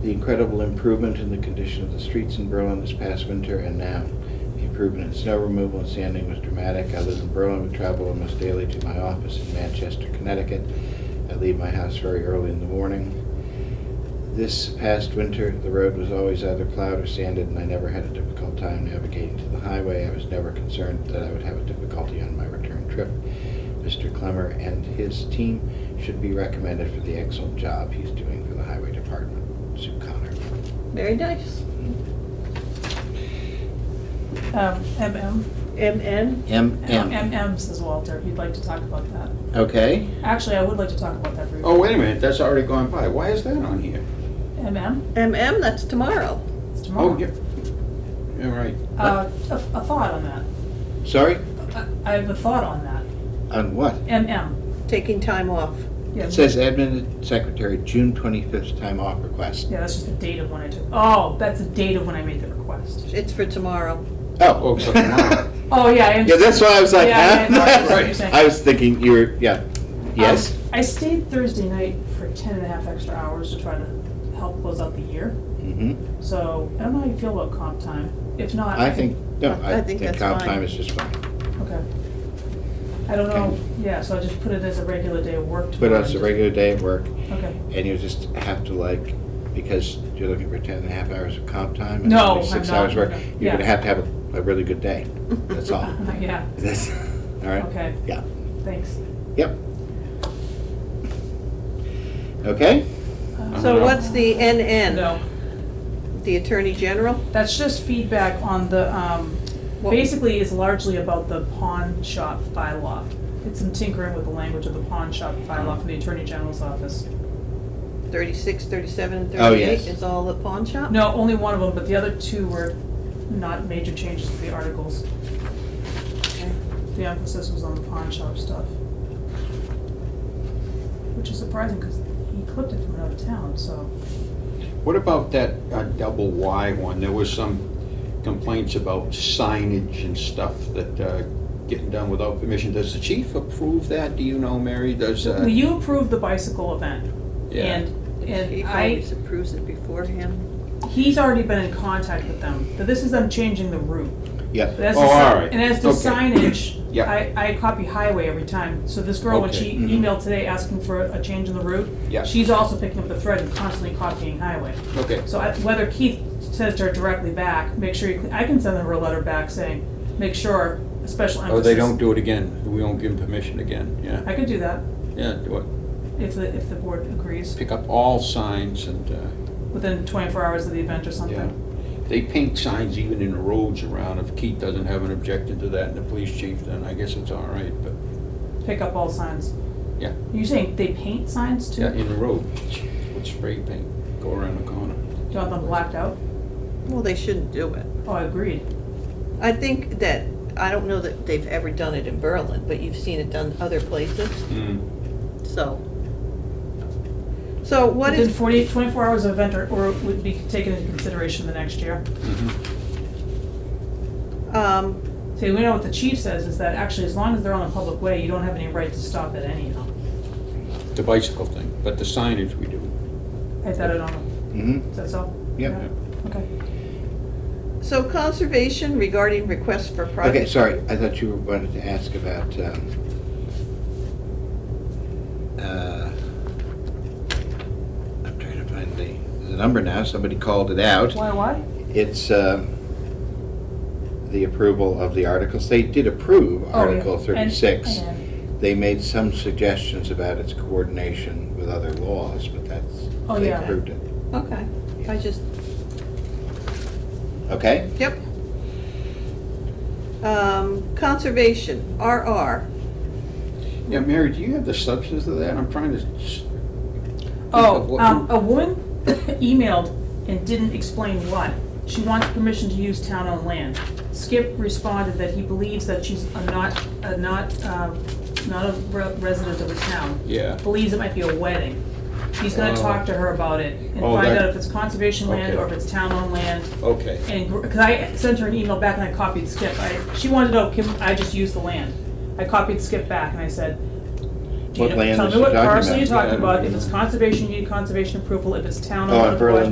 The incredible improvement in the condition of the streets in Berlin this past winter and now. The improvement in snow removal and sanding was dramatic. I live in Berlin, would travel almost daily to my office in Manchester, Connecticut. I leave my house very early in the morning. This past winter, the road was always either plowed or sanded, and I never had a difficult time navigating to the highway. I was never concerned that I would have a difficulty on my return trip. Mr. Clemmer and his team should be recommended for the excellent job he's doing for the highway department. Sue Connor. Very nice. Um, MM. MN? M M. MM, says Walter, he'd like to talk about that. Okay. Actually, I would like to talk about that briefly. Oh, wait a minute, that's already gone by. Why is that on here? MM, MM, that's tomorrow. it's Oh, tomorrow. yeah. Yeah, right. Uh, a, a thought on that. Sorry? I- I have a thought on that. On what? MM. Taking time off. Yeah, It says admin secretary, June 25th time off request. Yeah, that's just the date of when I took, oh, that's the date of when I made the request. It's for tomorrow. Oh. Oh, so tomorrow. Oh, yeah, I am. Yeah, that's why I was like, Yeah, yeah, no, I see what you're huh? saying. I was thinking you were, yeah. Yes? Um, I stayed Thursday night for ten and a half extra hours to try to help close out the year. Mm-hmm. uh, So I don't know how you feel about comp time. If not, I think, no, I I think think that's comp fine. time is just fine. Okay. I don't know, yeah, so I just put it as a regular day of work But tomorrow. it's a regular day at work, Okay. and you just have to like, because you're looking for ten and a half hours of comp time. and No, only Six I'm not. hours work, you're Yeah. gonna have to have a- a really good day, that's all. Yeah, That's, all right? Okay. Yeah, thanks. yep. Okay, So what's the NN? Uh-huh. No, The Attorney General? that's just feedback on the, um, What- basically it's largely about the pawn shop bylaw. It's some tinkering with the language of the pawn shop bylaw from the Attorney General's office. 36, 37, and Oh, yes. 38 is all the pawn shop? No, only one of them, but the other two were not major changes to the articles. Okay. The emphasis was on the pawn shop stuff. Which is surprising because he clipped it from another town, so. What about that uh, double Y one? There was some complaints about signage and stuff that uh, getting done without permission. Does the chief approve that? Do you know, Mary? Does, uh, Well, You approved the bicycle event. Yeah. And, He and I, always approves it beforehand. he's already been in contact with them, but this is them changing the route. yep. That's Oh, the, all si- right. And as to Okay. signage, Yeah. I, I copy highway every time. So this girl, when Okay. Mm-hmm. she Mhm. emailed today asking for a change in the route, Yeah. she's also picking up the thread and constantly copying highway. Okay, So I, whether Keith says to her directly back, make sure, you, I can send her a letter back saying, make sure, a special emphasis. oh, they don't do it again. We won't give them permission again, yeah. I could do that, Yeah, do it. if the, if the board agrees, Pick up all signs and, uh, within twenty-four hours of the event or yeah. something. They paint signs even in the roads around. If Keith doesn't have an objection to that and the police chief, then I guess it's all right, but, Pick up all signs. yeah. You're saying they paint signs too? Yeah, in the road, with spray paint, go around the corner. Do you want them blacked out? Well, they shouldn't do it. Oh, agreed. I think that, I don't know that they've ever done it in Berlin, but you've seen it done other places, Hmm. so. So what Within is, 48 24 hours of event or, or would be taken into consideration the next year. Mm-hmm. um, See, we know what the chief says is that actually, as long as they're on a public way, you don't have any right to stop it anyhow. The bicycle thing, but the signage we do. I thought I don't know. hmm Is that so? Yep. Yeah. Okay. so conservation regarding requests for private. Okay, sorry, I thought you wanted to ask about, um, uh, I'm trying to find the, the number now, somebody called it out. Why, why? It's, um, the approval of the articles. They did approve Oh, Article yeah. And- thirty-six. and- They made some suggestions about its coordination with other laws, but that's, Oh, they yeah. approved it. Okay, I just, Okay? yep. Um, conservation, RR, Yeah, Mary, do you have the substance of that? I'm trying to. s- think of Oh, what- um, a woman emailed and didn't explain why. She wants permission to use town-owned land. Skip responded that he believes that she's a not, a not, um, not a re- resident of the town. Yeah, believes it might be a wedding. He's gonna Oh. talk to her about it and Oh, find that- out if it's conservation land Okay. or if it's town-owned land. okay. And, gr- cause I sent her an email back and I copied Skip. I, she wanted to know, can I just use the land? I copied Skip back and I said, do you What know- land tell is me she what talking parcel about? you're talking Yeah, I don't about. If know. it's conservation, you need conservation approval. If it's town-owned, Oh, in otherwise- Berlin